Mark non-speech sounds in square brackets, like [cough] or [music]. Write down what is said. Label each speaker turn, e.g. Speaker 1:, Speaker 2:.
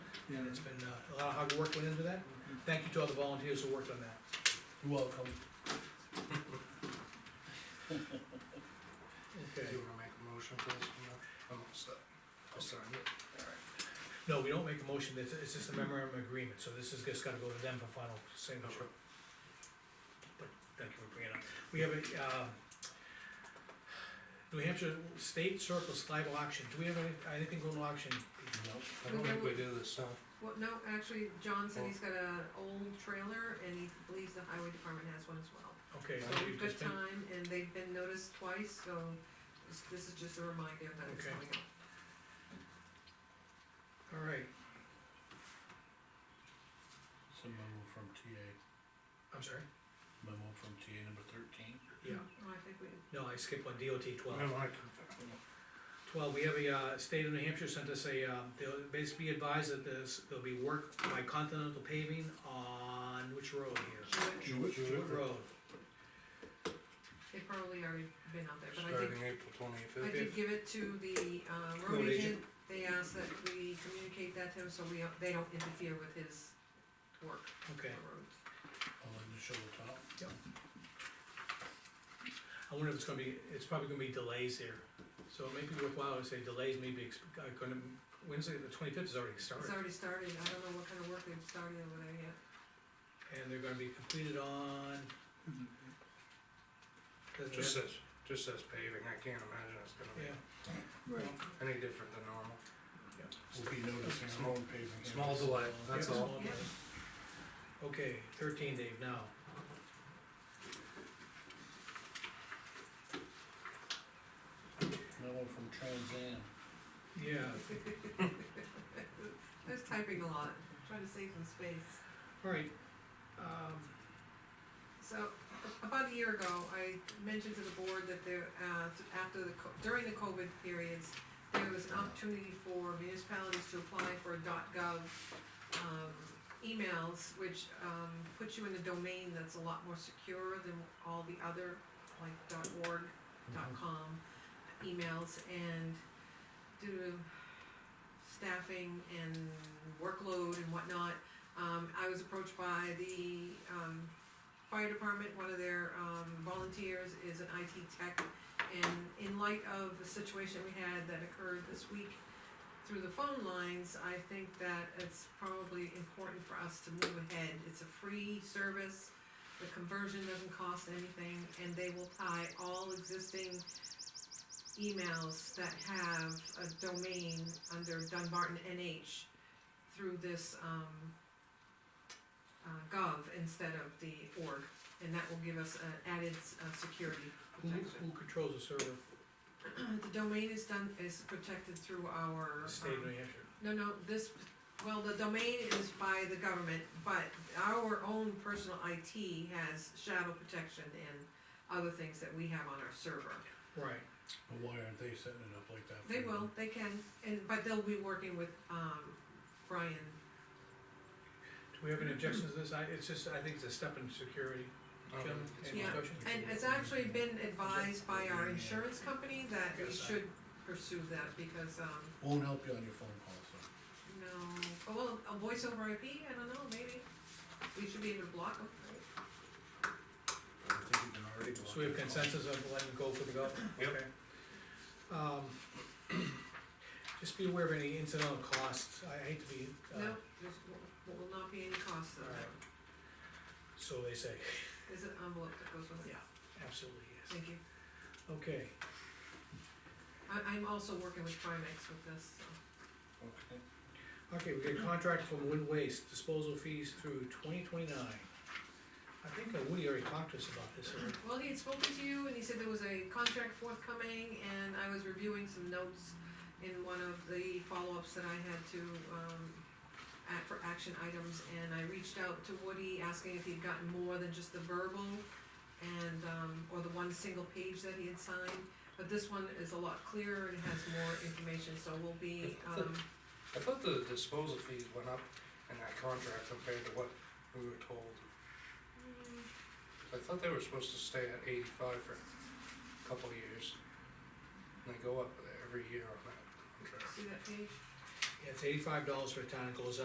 Speaker 1: and it's been, uh, a lot of hard work went into that. Thank you to all the volunteers who worked on that.
Speaker 2: You're welcome.
Speaker 1: Okay,
Speaker 3: Do you wanna make a motion, please? No, Oh, I'm all set. I'll sign it.
Speaker 1: no, we don't make a motion, it's, it's just a memorandum of agreement, so this is just gotta go to them for final signature. But thank you for bringing it up. We have a, uh, New Hampshire State Surplus Live Auction, do we have any, anything going to auction?
Speaker 3: I don't think we do this, huh?
Speaker 4: Well, no, actually, John said he's got an old trailer and he believes the highway department has one as well.
Speaker 1: Okay,
Speaker 4: So
Speaker 1: so you've
Speaker 4: we've
Speaker 1: Uh,
Speaker 4: got
Speaker 1: just been,
Speaker 4: time and they've been noticed twice, so this- this is just a reminder that it's
Speaker 1: Okay.
Speaker 4: coming up.
Speaker 1: all right,
Speaker 2: It's a memo from TA,
Speaker 1: I'm sorry,
Speaker 2: memo from TA number thirteen.
Speaker 1: yeah,
Speaker 4: Oh, I think we,
Speaker 1: no, I skipped one, DOT twelve.
Speaker 3: I like it.
Speaker 1: Twelve, we have a, uh, state of New Hampshire sent us a, uh, they'll basically be advised that there's, there'll be work by Continental Paving on which road here?
Speaker 4: should-
Speaker 2: Jewett?
Speaker 3: Jewett.
Speaker 1: What road?
Speaker 4: they've probably already been out there, but I did,
Speaker 3: Starting April
Speaker 4: I
Speaker 3: twenty-fifth.
Speaker 4: did give it to the, uh,
Speaker 1: Road
Speaker 4: road
Speaker 1: agent.
Speaker 4: agent. They asked that we communicate that to him, so we, don't- they don't interfere with his work on
Speaker 1: Okay,
Speaker 4: the roads.
Speaker 2: I'll let you show the top.
Speaker 1: I wonder if it's gonna be, it's probably gonna be delays here, so it may be worthwhile to say delays may be, ex- uh, gonna, Wednesday, the twenty-fifth is already
Speaker 4: It's
Speaker 1: started.
Speaker 4: already started, I don't know what kind of work they've started over there yet. [laughs]
Speaker 1: And they're gonna be completed on. doesn't
Speaker 3: Just
Speaker 1: matter.
Speaker 3: says, just says paving, I can't imagine it's gonna
Speaker 1: Yeah,
Speaker 3: be any different than normal.
Speaker 2: We'll be noticing our own paving.
Speaker 3: Small delay, that's
Speaker 1: Yeah,
Speaker 3: all.
Speaker 1: small
Speaker 4: Yeah.
Speaker 1: matter. Okay, thirteen, Dave, now.
Speaker 2: Memo from Trans Am.
Speaker 1: Yeah,
Speaker 4: I was typing a lot, trying to save some space.
Speaker 1: all right, um,
Speaker 4: So, a- about a year ago, I mentioned to the board that there, uh, after the, co- during the COVID periods, there was an opportunity for municipalities to apply for gov, um, emails, which, um, puts you in a domain that's a lot more secure than all the other, like org, com emails, and due to staffing and workload and whatnot, um, I was approached by the, um, fire department, one of their, um, volunteers is an IT tech. And in light of the situation we had that occurred this week through the phone lines, I think that it's probably important for us to move ahead. It's a free service, the conversion doesn't cost anything, and they will tie all existing emails that have a domain under Dunbarton NH through this, um, uh, gov instead of the org, and that will give us uh, added uh, security
Speaker 1: who,
Speaker 4: protection.
Speaker 1: who controls the server?
Speaker 4: The domain is done, is protected through our.
Speaker 1: State of
Speaker 4: um,
Speaker 1: New Hampshire.
Speaker 4: No, no, this, well, the domain is by the government, but our own personal IT has shadow protection and other things that we have on our server.
Speaker 1: Right,
Speaker 2: But why aren't they setting it up like that?
Speaker 4: They
Speaker 2: for
Speaker 4: will,
Speaker 2: them?
Speaker 4: they can, and, but they'll be working with, um, Brian.
Speaker 1: do we have any objections to this? I, it's just, I think it's a step in security.
Speaker 3: Um,
Speaker 1: Gentlemen, any
Speaker 4: Yeah.
Speaker 1: discussion?
Speaker 4: And it's actually been advised by our insurance company that we
Speaker 1: Yes, I-
Speaker 4: should pursue that because, um,
Speaker 2: Won't help you on your phone calls, though.
Speaker 4: No, oh, well, a voice over IP, I don't know, maybe, we should be able to block them.
Speaker 2: I think you can already block
Speaker 1: So we have
Speaker 2: your phone.
Speaker 1: consensus of letting go for the go?
Speaker 3: Yep.
Speaker 1: Okay. Um, [clears throat] just be aware of any incidental costs, I hate to be, uh,
Speaker 4: No, there's, will will not be any cost of that,
Speaker 1: Alright. so they say,
Speaker 4: there's an envelope that goes with it,
Speaker 1: absolutely yes.
Speaker 4: thank you.
Speaker 1: Okay,
Speaker 4: I, I'm also working with Primex with this, so.
Speaker 2: Okay.
Speaker 1: okay, we get a contract from Wind Waste, disposal fees through twenty twenty-nine. I think uh, Woody already talked to us about this, already.
Speaker 4: Well, he had spoken to you and he said there was a contract forthcoming and I was reviewing some notes in one of the follow-ups that I had to, um, act for action items and I reached out to Woody asking if he'd gotten more than just the verbal and, um, or the one single page that he had signed. But this one is a lot clearer and has more information, so we'll be, um,
Speaker 3: I thought the disposal fees went up in that contract compared to what we were told.
Speaker 4: Mmh.
Speaker 3: I thought they were supposed to stay at eighty-five for a couple of years. And they go up every year on that contract.
Speaker 4: see that page?
Speaker 1: Yeah, it's eighty-five dollars for a ton, it goes up